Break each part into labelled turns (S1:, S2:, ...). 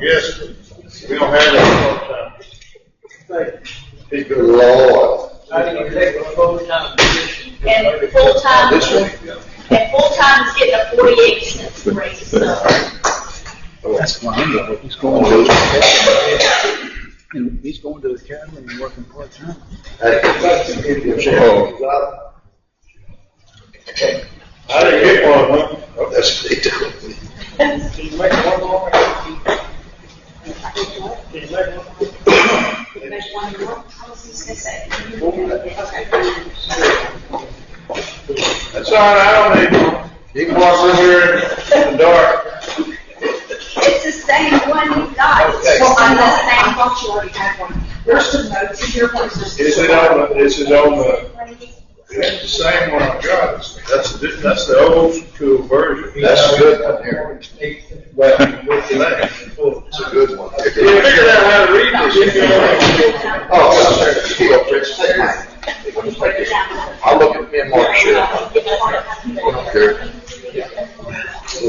S1: Yes, we don't have that part-time. He
S2: Good
S1: goes,
S2: Lord.
S3: I think you take a full-time position.
S4: And full-time,
S2: This one?
S4: and full-time is getting a forty-eight cents raise, so.
S5: That's why I'm going. He's going to,
S2: Oh.
S5: and he's going to the academy and working part-time.
S1: I didn't get one, huh?
S2: That's what they do.
S3: Can you make one more? Can you make one more?
S4: Make one more, I was just gonna say.
S1: That's all right, I don't need one. He can walk over here in the dark.
S4: It's the same one you got, it's
S2: Okay.
S4: just on the same function.
S6: There's some notes in here, places.
S1: This is on, the- this is on the, it's the same one I got. That's, the- that's the old school version.
S2: That's a good one here.
S1: Well, what's the name?
S2: It's a good one.
S1: You figured out how to read this, you know?
S2: Oh, there, you go, Prince. I'll look at me and Mark Sure. Sure.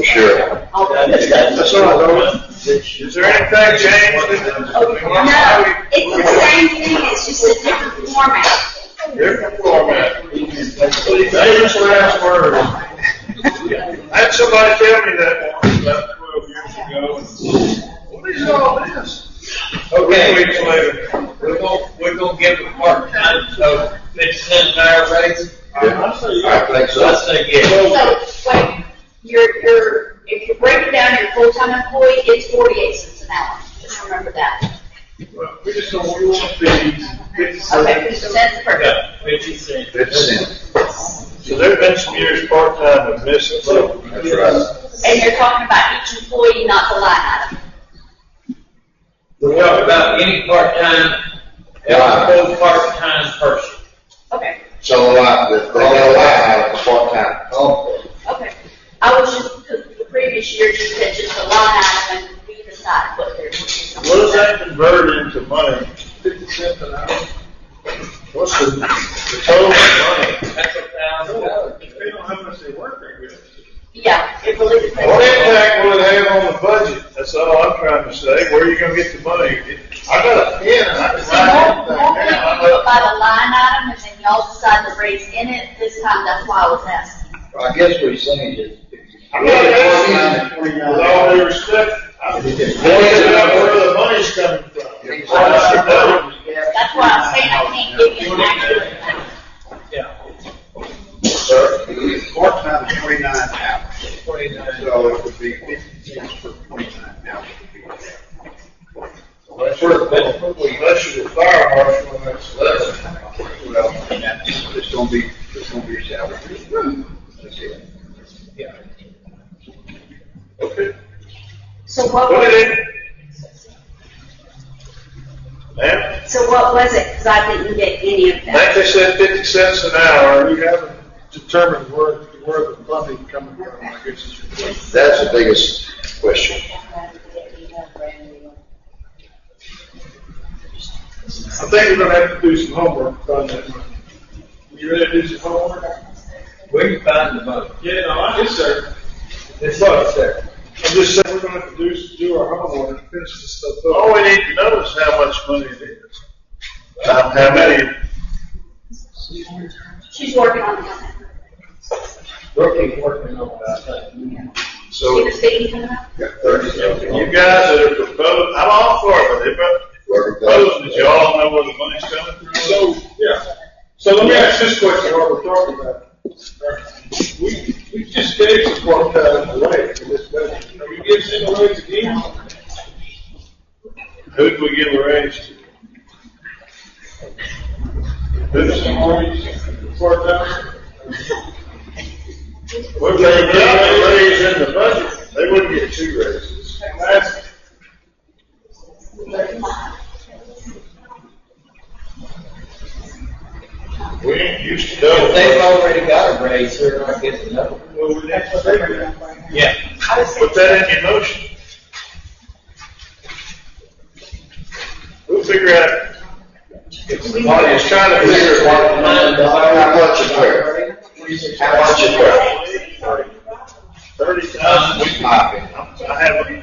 S2: Sure.
S1: That's all I know. Is there anything changed?
S4: No, it's the same thing, it's just a different format.
S1: Different format. David's last word. I had somebody tell me that once about twelve years ago. What is all this? Oh,
S3: Okay.
S1: Three Weeks later.
S3: We're gonna, we're gonna give it part-time, so fifty cent an hour raise.
S2: Yeah. I think
S3: So I
S2: so.
S3: say yes.
S4: So, wait, your, your, if you break it down, your full-time employee gets forty-eight cents an hour, just remember that.
S1: Well, We just don't, we want these fifty
S4: Okay,
S1: cents.
S4: so that's perfect.
S3: Yeah, fifty cent.
S2: Fifty cent.
S1: So there've been some years part-time and missing.
S2: That's right.
S4: And you're talking about each employee, not the line item.
S3: We're talking about any part-time, every full part-time person.
S4: Okay,
S2: So, uh, the, the, the, part-time. Oh.
S4: okay. I was just, 'cause the previous year just said just the line item, and we decide what they're.
S1: What does that convert into money? Fifty cents an hour. What's the, the total of money?
S3: That's a thousand dollars.
S1: Depending on how much they work, they get.
S4: Yeah, it really depends.
S1: What impact will it have on the budget? That's all I'm trying to say. Where are you gonna get the money? I got a pen, and I can
S4: So more,
S1: write
S4: more
S1: everything
S4: people
S1: down.
S4: do it
S1: I
S4: by the line item, and then y'all decide the rates in it, this time, that's why I was asking.
S2: I guess what he's saying is.
S1: I'm not asking, you, with all due respect, I'm just pointing out where the money's coming from.
S2: He's-
S1: I should know.
S4: That's why I'm saying I can't give you an accurate. number.
S3: Yeah,
S2: Sir?
S7: Part-time is twenty-nine hours,
S3: twenty-nine.
S7: so it would be fifty cents for twenty-nine hours.
S1: Unless you're, unless you're the fire marshal, that's less.
S7: Well, and that's, it's gonna be, it's gonna be a salary.
S5: Hmm.
S7: That's it.
S3: Yeah.
S1: Okay.
S4: So what
S1: Put
S4: was,
S1: it in. Ma'am,
S4: so what was it, because I didn't get any of
S1: like
S4: that.
S1: they said, fifty cents an hour, you haven't determined where,
S7: Where the funding coming from, I guess is your question.
S2: That's the biggest question.
S1: I think we're gonna have to do some homework on that. You ready to do some homework?
S3: Where you find the money?
S1: Yeah, no, I just sir.
S3: It's what's there.
S1: I'm just saying we're gonna have to do, do our homework and finish this stuff up. All we need to know is how much money it is. How many?
S4: She's working on that.
S3: Working, working on that thing.
S4: See
S2: So,
S4: the speaking coming up?
S1: You guys that are proposing, I'm all for it, but if I propose that you all know where the money's coming from.
S8: So, yeah, so let me ask this question while we're talking about it. We, we just gave some part-time away for this budget. Are we giving them away again?
S1: Who'd we give a raise to? Who's
S8: Part-time?
S1: Well, they got a raise in the budget, they wouldn't get two raises.
S8: That's,
S1: We ain't used to
S3: If they've
S1: double.
S3: already got a raise, they're not getting another. one. Yeah.
S1: Put that in your motion. We'll figure out. Well, he's trying to figure out
S3: Nine
S2: How
S3: dollars.
S2: much is fair? How much is fair?
S1: thirty thousand.
S2: Popping.
S1: I have,